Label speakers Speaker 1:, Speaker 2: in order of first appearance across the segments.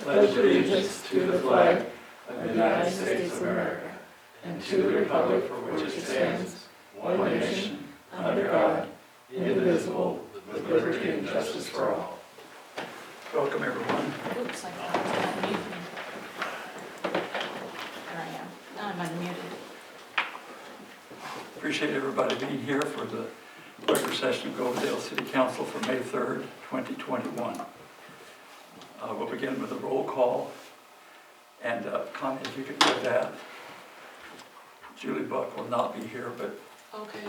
Speaker 1: pledge allegiance to the flag of the United States of America and to the republic for which it stands, one nation, under God, indivisible, with liberty and justice for all. Welcome, everyone.
Speaker 2: Oops, I thought I was unmuted. There I am. Now I'm unmuted.
Speaker 1: Appreciate everybody being here for the regular session of Goldendale City Council for May 3rd, 2021. Uh, We'll begin with a roll call, and uh, Connie, if you could do that. Julie Buck will not be here, but
Speaker 2: Okay.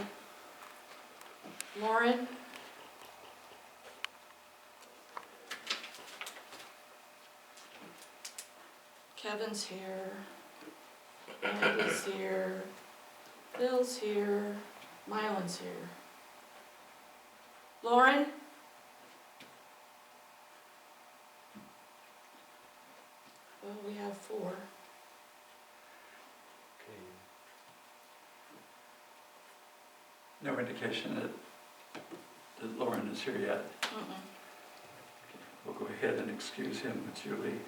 Speaker 2: Lauren? Kevin's here. Andy's here. Bill's here. Mylan's here. Lauren? Well, Oh, we have four.
Speaker 1: no indication that that Lauren is here yet.
Speaker 2: Mm-mm.
Speaker 1: We'll go ahead and excuse him with Julie.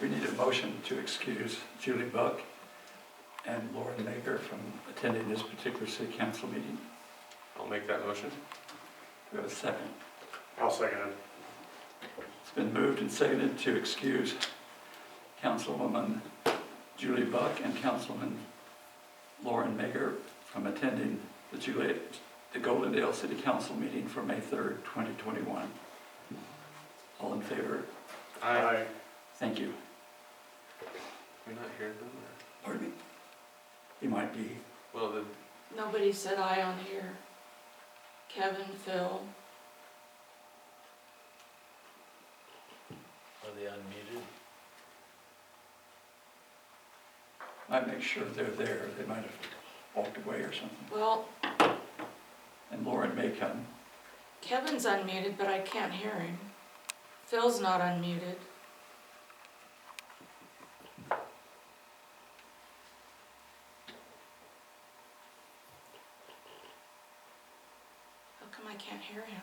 Speaker 1: We need a motion to excuse Julie Buck and Lauren Maker from attending this particular city council meeting.
Speaker 3: I'll make that motion.
Speaker 1: Do we have a second?
Speaker 3: I'll second it.
Speaker 1: It's been moved and seconded to excuse Councilwoman Julie Buck and Councilman Lauren Maker from attending the Juliet, the Goldendale City Council meeting for May 3rd, 2021. All in favor?
Speaker 3: Aye.
Speaker 1: Thank you.
Speaker 3: You're not here then?
Speaker 1: Pardon me? You might be.
Speaker 3: or- Well, then,
Speaker 2: Nobody said aye on here. Kevin, Phil,
Speaker 4: Are they unmuted?
Speaker 1: Might make sure they're there. They might have walked away or something.
Speaker 2: well,
Speaker 1: And Lauren may come.
Speaker 2: Kevin's unmuted, but I can't hear him. Phil's not unmuted. How come I can't hear him?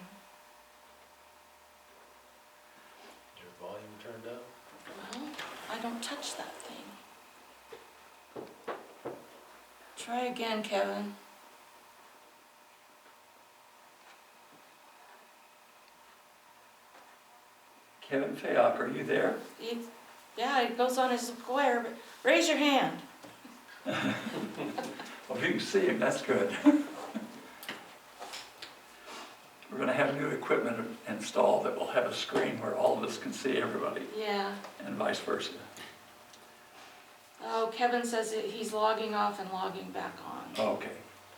Speaker 4: Your volume turned up?
Speaker 2: Well, I don't touch that thing. Try again, Kevin.
Speaker 1: Kevin Fayok, are you there?
Speaker 2: He, yeah, it goes on his square, but raise your hand.
Speaker 1: Well, if you can see him, that's good. We're gonna have new equipment installed that will have a screen where all of us can see everybody
Speaker 2: Yeah.
Speaker 1: and vice versa.
Speaker 2: Oh, Kevin says that he's logging off and logging back on.
Speaker 1: Oh, Okay,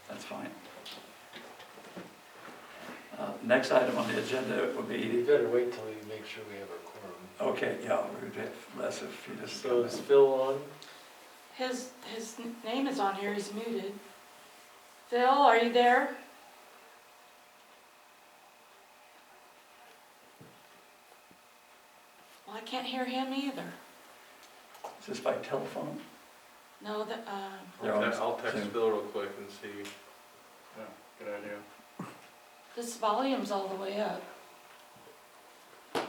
Speaker 1: that's fine. Uh, Next item on the agenda would
Speaker 4: You
Speaker 1: be,
Speaker 4: better wait till we make sure we have a quorum.
Speaker 1: okay, yeah, we would have less if you just.
Speaker 4: So is Phil on?
Speaker 2: His, his n- name is on here, he's muted. Phil, are you there? Well, I can't hear him either.
Speaker 1: Is this by telephone?
Speaker 2: No, that, um,
Speaker 1: They're on
Speaker 3: I'll te- I'll
Speaker 1: Zoom.
Speaker 3: text Bill real quick and see.
Speaker 4: Good idea.
Speaker 2: this volume's all the way up. Oh,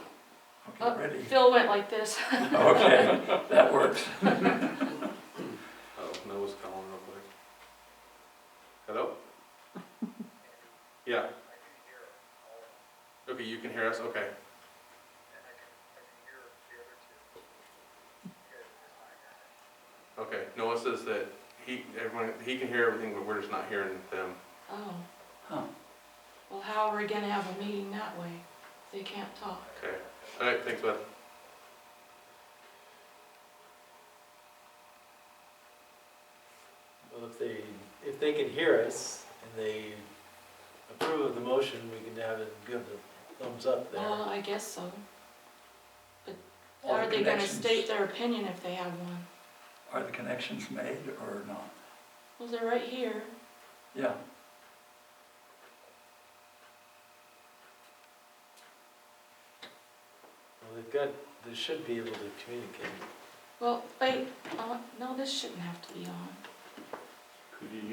Speaker 1: Okay, ready?
Speaker 2: Phil went like this.
Speaker 1: Okay, that works.
Speaker 3: Oh, Noah's calling real quick. Hello? Yeah. Okay, you can hear us, okay. Okay, Noah says that he, everyone, he can hear everything, but we're just not hearing them.
Speaker 2: Oh,
Speaker 1: Huh.
Speaker 2: well, how are we gonna have a meeting that way? if They can't talk.
Speaker 3: Okay, all right, thanks, bud.
Speaker 4: Well, if they, if they can hear us and they approve of the motion, we can have it, give the thumbs up there.
Speaker 2: Well, I guess so.
Speaker 1: All the
Speaker 2: Are they gonna
Speaker 1: connections-
Speaker 2: state their opinion if they have one?
Speaker 1: Are the connections made or not?
Speaker 2: Well, they're right here.
Speaker 1: Yeah,
Speaker 4: Well, they've got, they should be able to communicate.
Speaker 2: Well, wait, uh, no, this shouldn't have to be on.
Speaker 3: Could you